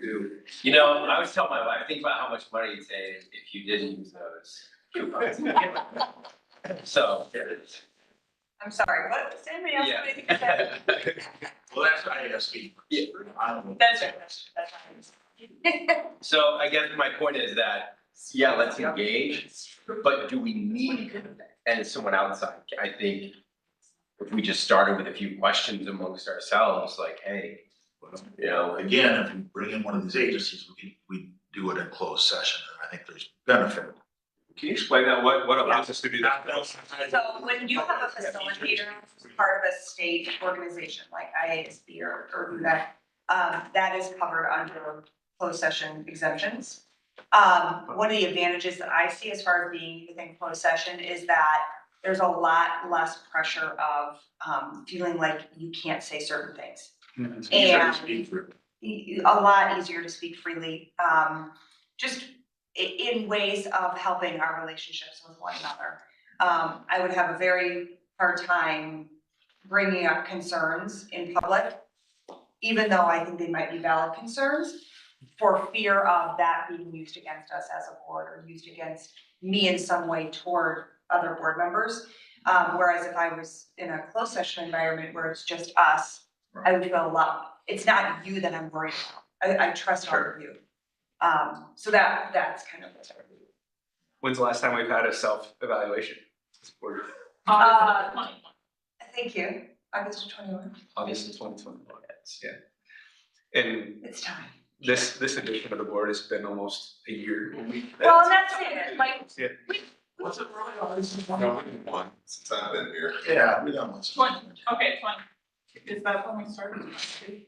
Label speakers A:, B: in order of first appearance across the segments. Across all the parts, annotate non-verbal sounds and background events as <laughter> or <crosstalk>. A: do.
B: You know, I always tell my wife, think about how much money you'd save if you didn't use those coupons. <laughs> So,
C: I'm sorry, what, does anybody else have anything to say?
B: <laughs> yeah.
D: Well, that's ISB.
B: Yeah.
D: I don't know.
C: That's right, that's right.
B: So I guess my point is that, yeah, let's engage, but do we need, and someone outside, I think. If we just started with a few questions amongst ourselves, like, hey, you know,
D: uh, Again, if we bring in one of these agencies, we can, we do it in closed session, and I think there's benefit.
A: Can you explain that, what, what allows us to do that?
C: So when you have a facilitator who's part of a state organization like IASB or, or UNEC, um, that is covered under closed session exemptions. Um, one of the advantages that I see as far as being within closed session is that there's a lot less pressure of, um, feeling like you can't say certain things.
D: It's easier to
C: And-
D: speak for it.
C: e- a lot easier to speak freely, um, just i- in ways of helping our relationships with one another. Um, I would have a very hard time bringing up concerns in public, even though I think they might be valid concerns, for fear of that being used against us as a board or used against me in some way toward other board members. Um, whereas if I was in a closed session environment where it's just us, I would feel a lot, it's not you that I'm worried about, I, I trust all of you. Um, so that, that's kind of what's.
A: When's the last time we've had a self-evaluation?
C: Uh, Thank you, August of twenty-one,
B: obviously twenty twenty one.
A: And
C: it's time.
A: this, this edition of the board has been almost a year.
C: Well, and that's it, like,
D: What's it really, oh, this is one.
E: One, since I've been here.
D: Yeah, we don't want. to-
F: One. Okay, twenty. Is that when we started? Okay,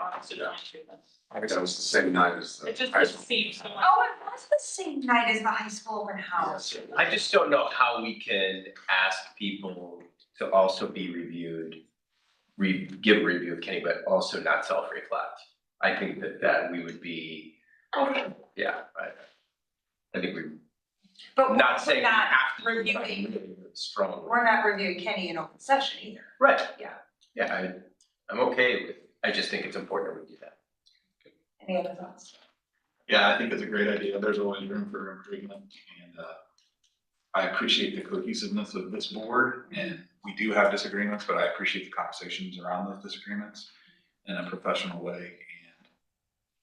F: August of twenty-two then.
E: I think that was the same night as the
F: It just
E: high
F: it
E: school.
F: seems so much.
C: oh, it was the same night as the high school open house.
B: I just don't know how we can ask people to also be reviewed, re, give a review of Kenny, but also not self-reflect. I think that that we would be, yeah, I, I think we,
C: But we're
B: not
C: we're
B: saying we
C: not,
B: have to. but
C: reviewing.
B: really Strongly.
C: we're not reviewing Kenny in open session either.
B: Right.
C: Yeah.
B: Yeah, I, I'm okay with, I just think it's important that we do that.
C: Any other thoughts?
E: Yeah, I think it's a great idea. There's always room for improvement and uh. I appreciate the cohesiveness of this board and we do have disagreements, but I appreciate the conversations around those disagreements in a professional way. And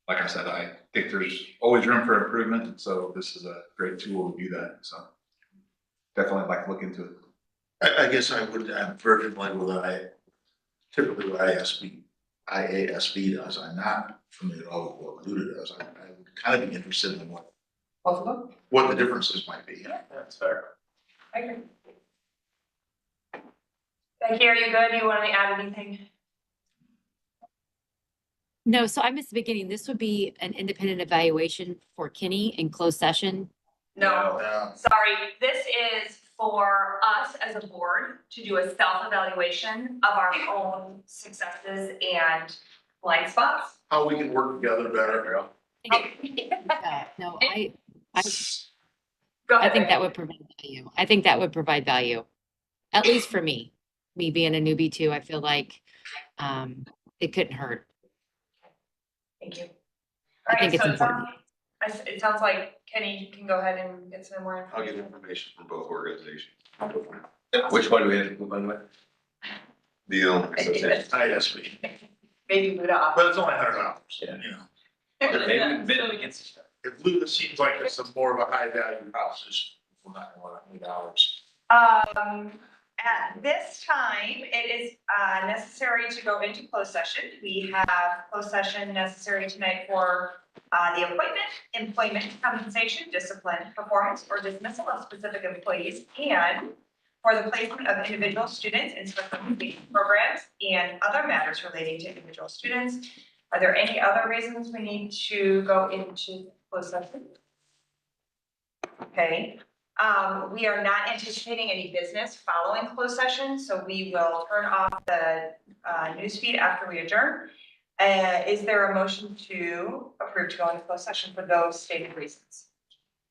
E: Like I said, I think there's always room for improvement, and so this is a great tool to do that, so. Definitely like to look into it.
D: I, I guess I would, I'm virgin like what I, typically what ISB, IASB does, I'm not familiar at all with what Luda does, I, I would kind of be interested in what,
C: Both of them?
D: what the differences might be.
B: That's fair.
C: I agree. Becky, are you good, you wanna add anything?
G: No, so I missed the beginning. This would be an independent evaluation for Kenny in closed session.
C: No,
D: Yeah,
C: Sorry, this is for us as a board to do a self-evaluation of our own successes and blind spots.
D: how we can work together better.
G: Uh, No, I, I,
C: Go
G: I
C: ahead,
G: think that
C: Megan.
G: would provide value. I think that would provide value. At least for me, me being a newbie too, I feel like, um, it couldn't hurt.
C: Thank you.
G: I think it's
C: Alright, so it sounds,
G: important.
C: I s- it sounds like Kenny can go ahead and get some more.
E: I'll get information from both organizations.
B: Which one do we have to move on with?
E: The only
C: <laughs> information.
D: ISB,
C: Maybe Buddha off.
D: but it's only a hundred dollars, you
B: Yeah.
D: know.
B: Maybe, maybe against each other.
D: If Luda seems like it's a more of a high value house, it's not gonna want eight hours.
C: Um, at this time, it is, uh, necessary to go into closed session. We have closed session necessary tonight for, uh, the appointment, employment, compensation, discipline, performance, or dismissal of specific employees, and for the placement of individual students in special education programs and other matters relating to individual students. Are there any other reasons we need to go into closed session? Okay, um, we are not anticipating any business following closed session, so we will turn off the, uh, news feed after we adjourn. Uh, is there a motion to approve to go into closed session for those stated reasons?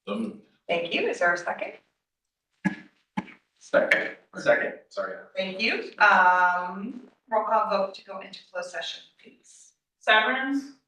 D: So,
C: Thank you. Is there a second?
B: Second, second, sorry.
C: Thank you. Um, roll call vote to go into closed session, please.
F: Severance,